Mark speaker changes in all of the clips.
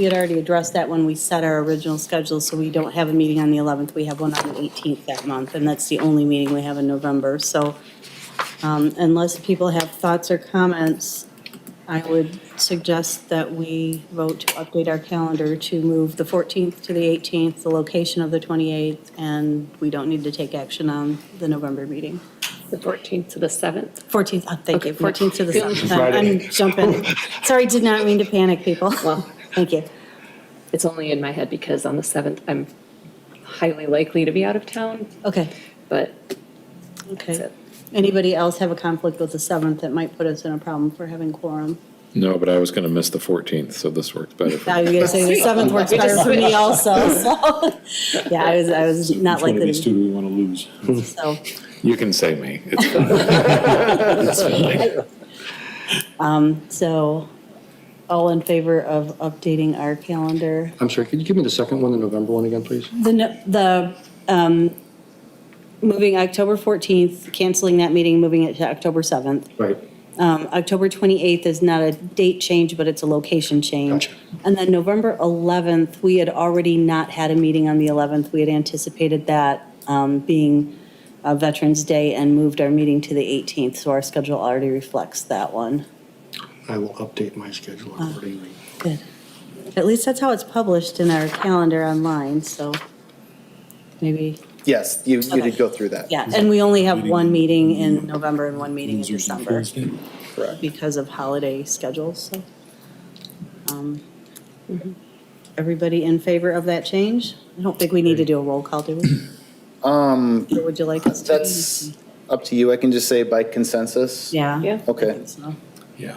Speaker 1: We had already addressed that when we set our original schedule, so we don't have a meeting on the 11th. We have one on the 18th that month, and that's the only meeting we have in November. So um, unless people have thoughts or comments, I would suggest that we vote to update our calendar to move the 14th to the 18th, the location of the 28th, and we don't need to take action on the November meeting.
Speaker 2: The 14th to the 7th.
Speaker 1: 14th, oh, thank you,
Speaker 2: Okay, yeah.
Speaker 1: 14th to the
Speaker 2: Yeah.
Speaker 1: 7th. I'm
Speaker 3: Friday.
Speaker 1: jumping. Sorry, did not mean to panic, people.
Speaker 2: Well,
Speaker 1: Thank you.
Speaker 2: it's only in my head because on the 7th, I'm highly likely to be out of town,
Speaker 1: Okay,
Speaker 2: but That's
Speaker 1: okay.
Speaker 2: it.
Speaker 1: Anybody else have a conflict with the 7th that might put us in a problem for having quorum?
Speaker 4: No, but I was going to miss the 14th, so this works better. for me.
Speaker 1: Now you're gonna say the 7th works better for me also, so. Yeah, I was, I was not
Speaker 3: Which one of
Speaker 1: likely
Speaker 3: these two
Speaker 1: to,
Speaker 3: do we want to lose?
Speaker 1: so.
Speaker 4: You can say me. It's fine.
Speaker 1: So, all in favor of updating our calendar?
Speaker 5: I'm sorry, could you give me the second one, the November one again, please?
Speaker 1: The, no- the, um, moving October 14th, canceling that meeting, moving it to October 7th.
Speaker 5: Right.
Speaker 1: Um, October 28th is not a date change, but it's a location change.
Speaker 5: Gotcha.
Speaker 1: And then November 11th, we had already not had a meeting on the 11th. We had anticipated that um, being uh, Veterans Day and moved our meeting to the 18th, so our schedule already reflects that one.
Speaker 5: I will update my schedule
Speaker 1: Uh,
Speaker 5: accordingly.
Speaker 1: Good. At least that's how it's published in our calendar online, so maybe,
Speaker 6: Yes, you, you
Speaker 1: Okay.
Speaker 6: did go through that.
Speaker 1: yeah. And we only have one meeting in November and one meeting in December
Speaker 6: Correct.
Speaker 1: because of holiday schedules, so. Um, Everybody in favor of that change? I don't think we need to do a roll call, do we? Um. Or would you like us to?
Speaker 6: That's up to you. I can just say by consensus.
Speaker 1: Yeah.
Speaker 2: Yeah.
Speaker 1: I
Speaker 6: Okay.
Speaker 1: think so.
Speaker 3: Yeah.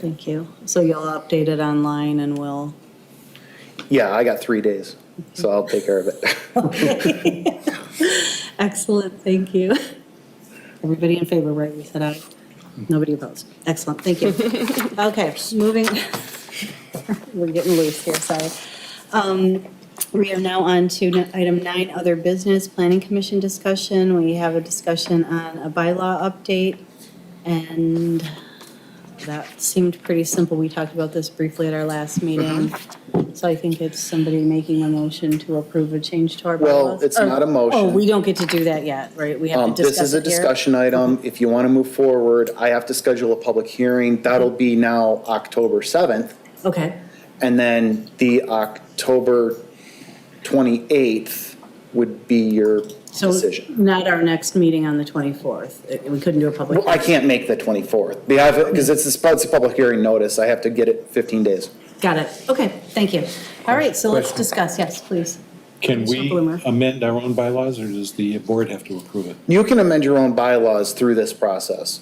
Speaker 1: Thank you. So you'll update it online and we'll.
Speaker 6: Yeah, I got three days, so I'll take care of it.
Speaker 1: Excellent, thank you. Everybody in favor, right? We said aye. Nobody opposed. Excellent, thank you. Okay, moving, we're getting loose here, sorry. Um, We are now on to n- item nine, other business, planning commission discussion. We have a discussion on a bylaw update, and that seemed pretty simple. We talked about this briefly at our last meeting.
Speaker 6: Mm-hmm.
Speaker 1: So I think it's somebody making a motion to approve a change to our bylaws.
Speaker 6: Well, it's not a
Speaker 1: Oh,
Speaker 6: motion.
Speaker 1: we don't get to do that yet, right? We have
Speaker 6: Um,
Speaker 1: to
Speaker 6: this
Speaker 1: discuss
Speaker 6: is a
Speaker 1: it here. Mm-hmm.
Speaker 6: discussion item. If you want to move forward, I have to schedule a public hearing. That'll be now October seventh.
Speaker 1: Okay,
Speaker 6: And then the October twenty-eighth would be your
Speaker 1: so
Speaker 6: decision.
Speaker 1: not our next meeting on the 24th. Uh, We couldn't do a public.
Speaker 6: Well, I can't make the twenty-fourth. because it's, a- it's a public hearing notice. I have to get it fifteen days.
Speaker 1: Got it. Okay, thank you. All right, so let's discuss. Yes, please.
Speaker 3: Can
Speaker 1: Mr.
Speaker 3: we
Speaker 1: Bloomer.
Speaker 3: amend our own bylaws, or does the board have to approve it?
Speaker 6: You can amend your own bylaws through this process.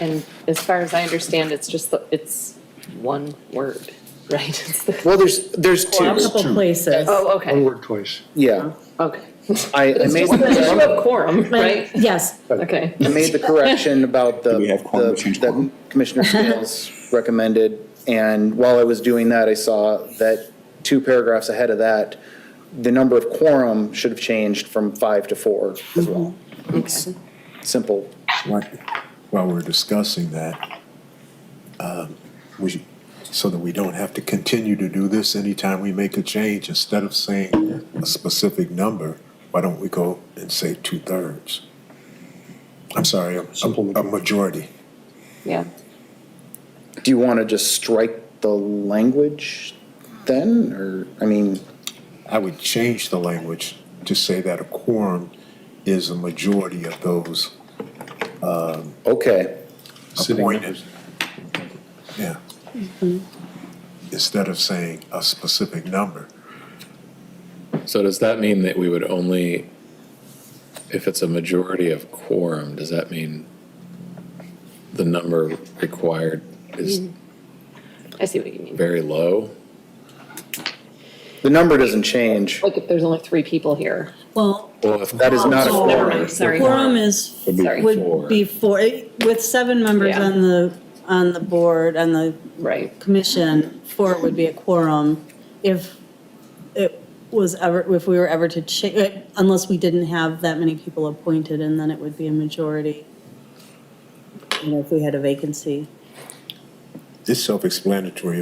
Speaker 2: And as far as I understand, it's just, the- it's one word, right? It's the-
Speaker 6: Well, there's, there's
Speaker 1: A
Speaker 6: two,
Speaker 1: couple places.
Speaker 2: Oh,
Speaker 5: One
Speaker 2: okay,
Speaker 5: word twice.
Speaker 6: yeah.
Speaker 2: okay.
Speaker 6: I, I made,
Speaker 2: It's an issue
Speaker 6: the-
Speaker 2: of quorum, right?
Speaker 1: Yes,
Speaker 2: Okay.
Speaker 6: I made the correction about the,
Speaker 3: Do we have quorum to
Speaker 6: the-
Speaker 3: change
Speaker 6: that
Speaker 3: quorum?
Speaker 6: Commissioner Scales recommended. And while I was doing that, I saw that two paragraphs ahead of that, the number of quorum should have changed from five to four as well.
Speaker 2: Okay.
Speaker 6: Simple.
Speaker 7: While while we're discussing that, um, we, so that we don't have to continue to do this anytime we make a change, instead of saying a specific number, why don't we go and say two-thirds? I'm sorry, a, a- a majority.
Speaker 2: Yeah,
Speaker 6: Do you want to just strike the language then, or, I mean?
Speaker 7: I would change the language to say that a quorum is a majority of those
Speaker 6: Okay,
Speaker 3: Sitting
Speaker 7: appointed.
Speaker 3: members.
Speaker 7: Yeah. Instead of saying a specific number.
Speaker 4: So does that mean that we would only, if it's a majority of quorum, does that mean the number required is
Speaker 2: I see what you mean.
Speaker 4: very low?
Speaker 6: the number doesn't change.
Speaker 2: Like if there's only three people here.
Speaker 1: well,
Speaker 4: Well, if
Speaker 6: That is not a
Speaker 1: Oh,
Speaker 2: Never
Speaker 6: quorum.
Speaker 2: mind, sorry.
Speaker 1: quorum is,
Speaker 4: Would be
Speaker 2: Sorry.
Speaker 4: four.
Speaker 1: would be four, with seven members
Speaker 2: Yeah.
Speaker 1: on the, on the board, on the
Speaker 2: Right,
Speaker 1: commission, four would be a quorum if it was ever, if we were ever to change, unless we didn't have that many people appointed, and then it would be a majority. You know, if we had a vacancy.
Speaker 7: it's self-explanatory